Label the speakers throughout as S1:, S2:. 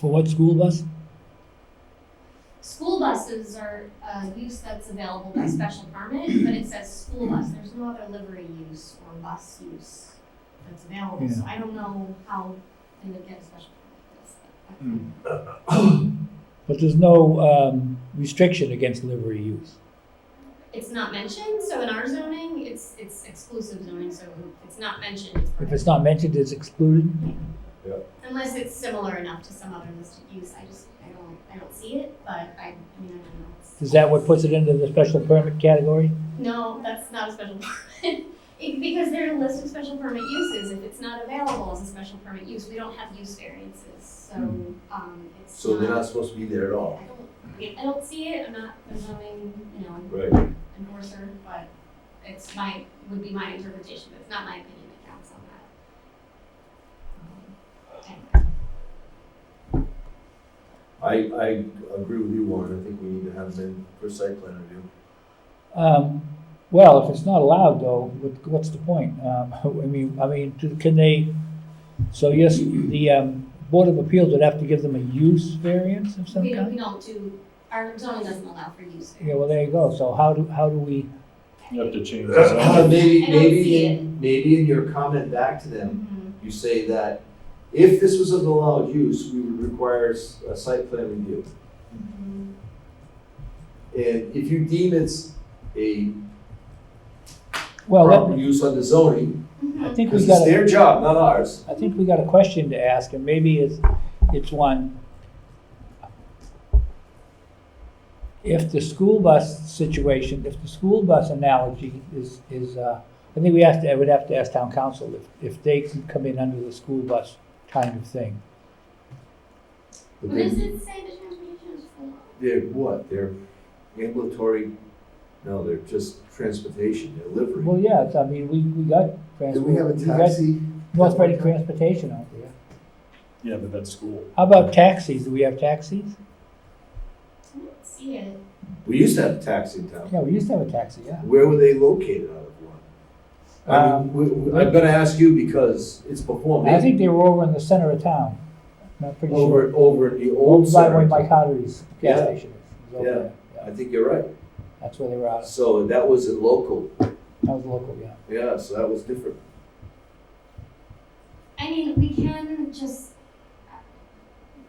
S1: For what school bus?
S2: School buses are a use that's available by special permit, but it says school bus, there's no other livery use or bus use that's available, so I don't know how they would get a special permit.
S1: But there's no um, restriction against livery use.
S2: It's not mentioned, so in our zoning, it's, it's exclusive zoning, so if it's not mentioned, it's
S1: If
S2: permitted.
S1: it's not mentioned, it's excluded.
S2: Unless it's similar enough to some other listed use, I just, I don't, I don't see it, but I, I mean, I don't know. It's-
S1: Is that what puts it into the special permit category?
S2: No, that's not a special permit. It- Because they're a list of special permit uses, if it's not available as a special permit use, we don't have use variances, so,
S1: Hmm.
S2: um, it's
S3: So they're not supposed to be there at
S2: I
S3: all.
S2: don't, I don't see it, I'm not a zoning, you know,
S3: Right.
S2: enforcer, but it's my, would be my interpretation, but it's not my opinion that counts on that. Um, anyway.
S3: I, I agree with you, Warren, I think we need to have them in for site plan review.
S1: Um, well, if it's not allowed though, what, what's the point? Um, I mean, I mean, do- can they, so yes, the, um, Board of Appeals would have to give them a use variance of some
S2: We don't,
S1: kind?
S2: Um, we don't do, our zoning doesn't allow for use
S1: Yeah,
S2: variance.
S1: well, there you go. So how do, how do we,
S4: You have to change the zone.
S3: Maybe,
S2: I don't see
S3: maybe, in- maybe in your comment back to them,
S2: Mhm.
S3: you say that if this was an allowed use, we would require s- a site plan review.
S2: Mhm.
S3: And if you deem it's a
S1: well,
S3: proper
S1: that-
S3: use under zoning,
S2: Mhm.
S1: I think we
S3: because it's
S1: gotta,
S3: their job, not ours.
S1: I think we got a question to ask and maybe it's, it's one. If the school bus situation, if the school bus analogy is, is, uh, I think we have to, I would have to ask town council if, if they can come in under the school bus kind of thing.
S3: But
S2: What does
S3: they-
S2: it say the transportation is for?
S3: They're what, they're ambulatory, no, they're just transportation, they're livery.
S1: Well, yeah, it's, I mean, we, we got
S5: Do we have
S1: transport,
S5: a
S1: we got
S5: taxi?
S1: North Reading Transportation out there.
S4: Yeah, but that's school.
S1: How about taxis? Do we have taxis?
S2: I don't see it.
S3: We used to have a taxi in town.
S1: Yeah, we used to have a taxi, yeah.
S3: Where were they located out of one? I mean,
S1: Um,
S3: we- we- I'm gonna ask you because it's before
S1: I
S3: me.
S1: think they were over in the center of town. I'm not pretty sure.
S3: Over, over at the old
S1: Over by where
S3: center.
S1: Mike Hotter's gas
S3: Yeah.
S1: station is. is over
S3: Yeah.
S1: there.
S3: I think you're right.
S1: That's where they were out.
S3: So that was a local,
S1: That was local, yeah.
S3: yeah, so that was different.
S2: I mean, we can just uh,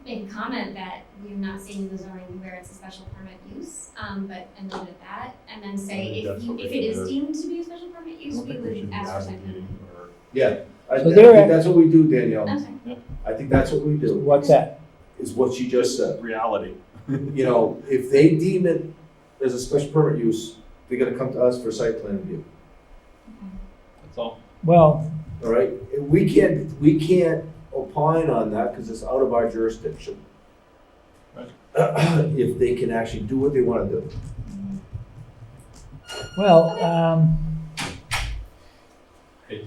S2: make a comment that we're not seeing the zoning where it's a special permit use, um, but a note of that, and then say
S4: I think
S2: if
S4: that's
S2: you,
S4: what we
S2: if it is
S4: should do.
S2: deemed to be a special permit
S4: I
S2: use,
S4: don't
S2: we
S4: think we should
S2: would
S4: be
S2: ask for
S4: advocating
S2: something.
S4: or
S3: I, I
S1: So
S3: think
S1: they're at-
S3: that's what we do, Danielle.
S2: I'm sorry.
S3: I think that's what we do,
S1: What's that?
S3: is what you just said.
S4: reality.
S3: You know, if they deem it as a special permit use, they're gonna come to us for site plan review,
S4: That's all.
S1: Well,
S3: all right? And we can't, we can't opine on that because it's out of our jurisdiction.
S4: Right.
S3: If they can actually do what they wanna do.
S1: well, um,
S4: Hey,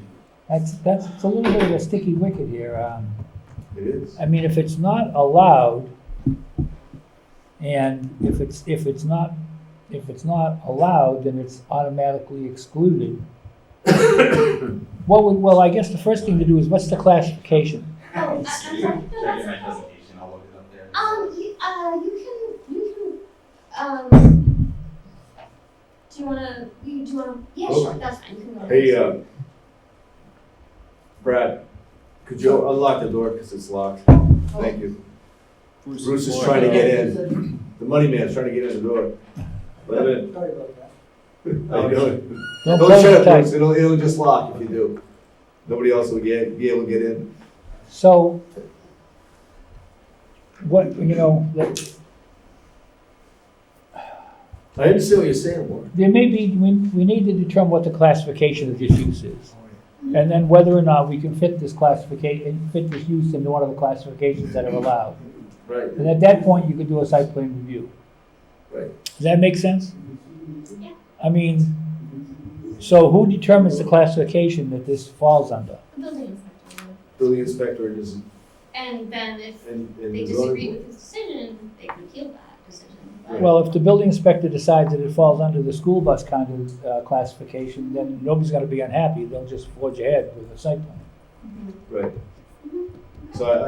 S1: that's, that's it's a little bit of a sticky wicket here. Um,
S3: It is.
S1: I mean, if it's not allowed, and if it's, if it's not, if it's not allowed, then it's automatically excluded. What would, well, I guess the first thing to do is, what's the classification?
S2: Oh, I- I'm sorry. No, that's okay.
S6: I'll look it up there.
S2: Um, you, uh, you can, you can, um, do you wanna, you, do you wanna, yeah,
S3: Oh.
S2: sure, that's fine, you can go.
S3: Hey, uh, Brad, could you unlock the door because it's locked?
S5: Oh.
S3: Thank you. Bruce is trying to get in. The money man's trying to get in the door. Let him in.
S5: Sorry about that.
S3: How you doing?
S1: Don't
S3: Don't
S1: close
S3: shut
S1: the
S3: up, Bruce. It'll, it'll just lock if you do. Nobody else will get, be able to get in.
S1: So, what, you know, that-
S3: I understand what you're saying, Warren.
S1: there may be, we, we need to determine what the classification of this use is. And then whether or not we can fit this classification, fit this use into one of the classifications that are allowed.
S3: Right.
S1: And at that point, you could do a site plan review.
S3: Right.
S1: Does that make sense?
S4: uh,
S2: Yeah.
S1: I mean, so who determines the classification that this falls under?
S2: The building inspector, will.
S3: Building inspector and his,
S2: and then if
S3: and, and
S2: they
S3: the
S2: disagree
S3: zoning.
S2: with his decision, they can appeal that decision, but.
S1: Well, if the building inspector decides that it falls under the school bus kind of uh, classification, then nobody's gonna be unhappy, they'll just forge ahead with a site plan.
S3: board. Right.
S2: Mhm.
S3: So I,